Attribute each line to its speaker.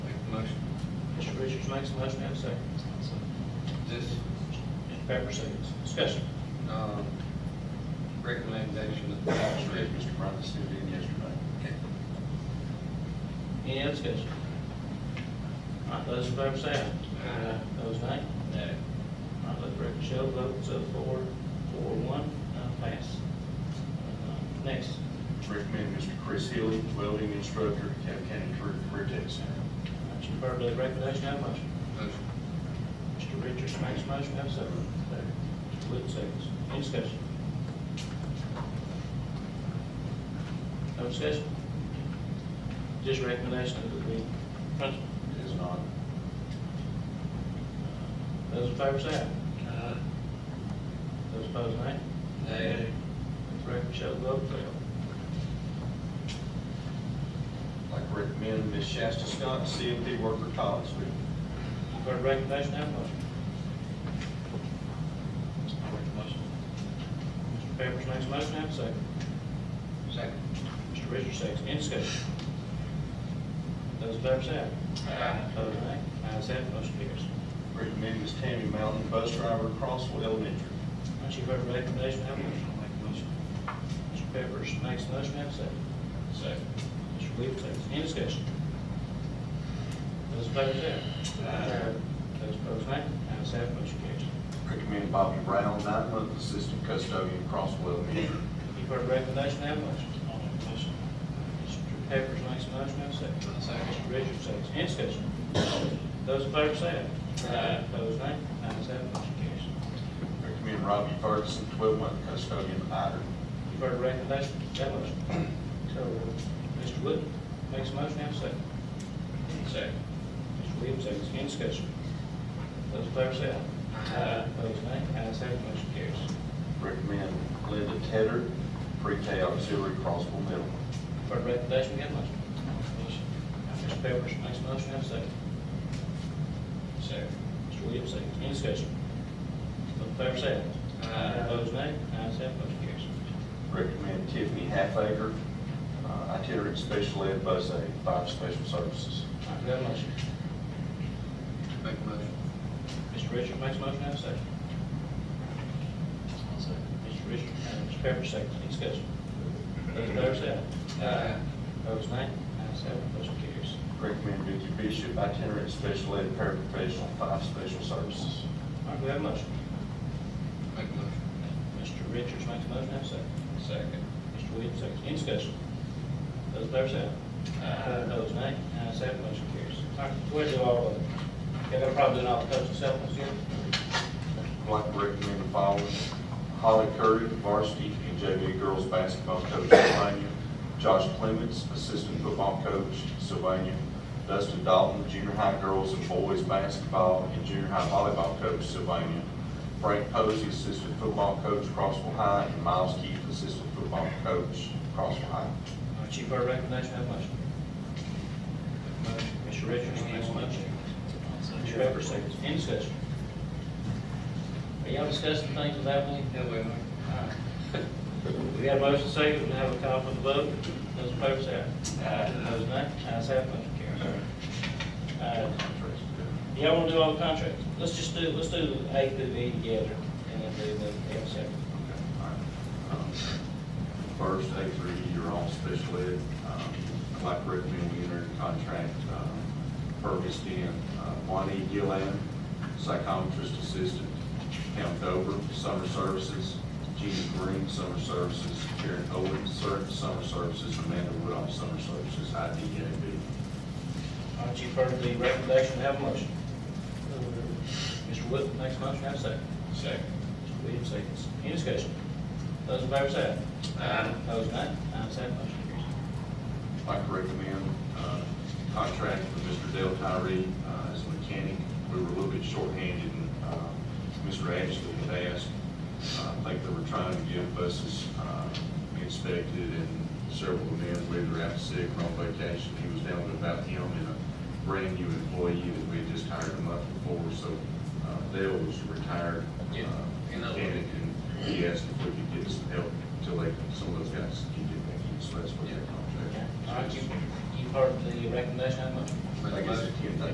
Speaker 1: Commissioner Richards makes a motion, have a second.
Speaker 2: This,
Speaker 1: Mr. Pepper seconds. Discussion.
Speaker 2: um, recommendation of the tax rate, Mr. Brown sent in yesterday.
Speaker 1: Any other discussion? All right, those in favor say aye.
Speaker 2: Aye.
Speaker 1: Those nay?
Speaker 2: No.
Speaker 1: All right, let the record show, votes of four, four, one, uh, pass. Uh, Next,
Speaker 3: Recommend Mr. Chris Healy, welding instructor, Cave County Career- Career Tech Center.
Speaker 1: you've heard the recommendation, have a motion.
Speaker 2: Motion.
Speaker 1: Mr. Richards makes a motion, have a second. Mr. Wood seconds. Any discussion? No discussion? Just recommendation of the principal.
Speaker 3: It is not.
Speaker 1: Those in favor say aye. Those opposed, nay.
Speaker 2: No.
Speaker 1: Let the record show, vote failed.
Speaker 3: I'd Like to recommend Ms. Shasta Scott, CMP worker, Collinsville.
Speaker 1: You've heard the recommendation, have a motion. Mr. Pepperidge makes a motion, have a second.
Speaker 2: Second.
Speaker 1: Mr. Richards seconds, any discussion? Those in favor say aye. Opposed, nay. Ayes have, it, motion carries.
Speaker 3: Recommend Ms. Tammy Mountain, bus driver, Crossville Elementary.
Speaker 1: Once you've heard the recommendation, have a motion. Mr. Pepperidge makes a motion, have a second.
Speaker 2: Second.
Speaker 1: Mr. Williams seconds, any discussion? Those in favor say aye.
Speaker 3: Aye.
Speaker 1: Those opposed, nay. Ayes have, it, motion carries.
Speaker 3: Recommend Bobby Brown, nine-month assistant custodian, Crossville Elementary.
Speaker 1: You've heard the recommendation, have a motion. Mr. Pepperidge makes a motion, have a second.
Speaker 2: Second.
Speaker 1: Mr. Richards seconds, any discussion? Those in favor say aye.
Speaker 2: Aye.
Speaker 1: Opposed, nay. Ayes have, it, motion carries.
Speaker 3: Recommend Robbie Ferguson, twelve-month custodian, Ider.
Speaker 1: You've heard the recommendation, have a motion. So, Mr. Wood makes a motion, have a second.
Speaker 2: Second.
Speaker 1: Mr. Williams seconds, any discussion? Those in favor say aye.
Speaker 2: Aye.
Speaker 1: Opposed, nay. Ayes have, it, motion carries.
Speaker 3: Recommend Linda Tedder, pre-K auxiliary, Crossville Middle.
Speaker 1: You've heard the recommendation, have a motion. Mr. Pepperidge makes a motion, have a second.
Speaker 2: Second.
Speaker 1: Mr. Williams seconds, any discussion? Those in favor say aye.
Speaker 2: Aye.
Speaker 1: Opposed, nay. Ayes have, it, motion carries.
Speaker 3: Recommend Tiffany Halfager, uh, itinerant special ed bus aide, five special services.
Speaker 1: All right, we have a motion.
Speaker 2: Make a motion.
Speaker 1: Mr. Richards makes a motion, have a second. Mr. Richards, and Mr. Pepper seconds, any discussion? Those in favor say aye.
Speaker 2: Aye.
Speaker 1: Opposed, nay. Ayes have, it, motion carries.
Speaker 3: Recommend Vicky Bishop, itinerant special ed paraprofessional, five special services.
Speaker 1: All right, we have a motion.
Speaker 2: Make a motion.
Speaker 1: Mr. Richards makes a motion, have a second.
Speaker 2: Second.
Speaker 1: Mr. Williams seconds, any discussion? Those in favor say aye.
Speaker 2: Aye.
Speaker 1: Opposed, nay. Ayes have, it, motion carries. All right, where do all, y'all got probably done all the coaching supplements here?
Speaker 3: I'd like to recommend the following. Holly Curry, varsity and JV girls basketball coach, Sylvania. Josh Clements, assistant football coach, Sylvania. Dustin Dalton, junior high girls and boys basketball and junior high volleyball coach, Sylvania. Frank Posey, assistant football coach, Crossville High, and Miles Keith, assistant football coach, Crossville High.
Speaker 1: All right, Chief, heard the recommendation, have a motion.
Speaker 2: Motion.
Speaker 1: Mr. Richards makes a motion. Mr. Pepper seconds, any discussion? Are y'all discussing things without me?
Speaker 2: Yeah, we are.
Speaker 1: We got a motion second, we have a call for the vote. Those in favor say aye.
Speaker 2: Aye.
Speaker 1: Those nay, ayes have, motion carries. Uh, Y'all want to do all the contracts? Let's just do, let's do A through E together, and then do the F separate.
Speaker 3: Okay, all right. Um, First, A three, you're all special ed. Um, I'd like to recommend we enter into contract um, Purvis Dent, Juanita Gillan, psychometrist assistant, Pam Dover, summer services, Gina Green, summer services, Karen Owens, ser- summer services, Amanda Woodall, summer services, IDAB.
Speaker 1: All right, you've heard the recommendation, have a motion. Mr. Wood makes a motion, have a second.
Speaker 2: Second.
Speaker 1: Mr. Williams seconds. Any discussion? Those in favor say aye.
Speaker 2: Aye.
Speaker 1: Those nay, ayes have, motion carries.
Speaker 3: I'd like to recommend uh, contract for Mr. Dale Tyree uh, as a mechanic. We were a little bit shorthanded, and um, Mr. Ashley had asked, uh, I think they were trying to get buses uh, inspected, and several of them, we were out sick or on vacation, he was down to about him and a brand-new employee that we had just hired a month before, so uh, Dale was a retired uh,
Speaker 2: Yeah, you know.
Speaker 3: mechanic, and he asked if we could get some help till they, some of those guys can get back in, so that's what that contract
Speaker 1: All right, you, you've heard the recommendation, have a motion.
Speaker 2: Make a motion.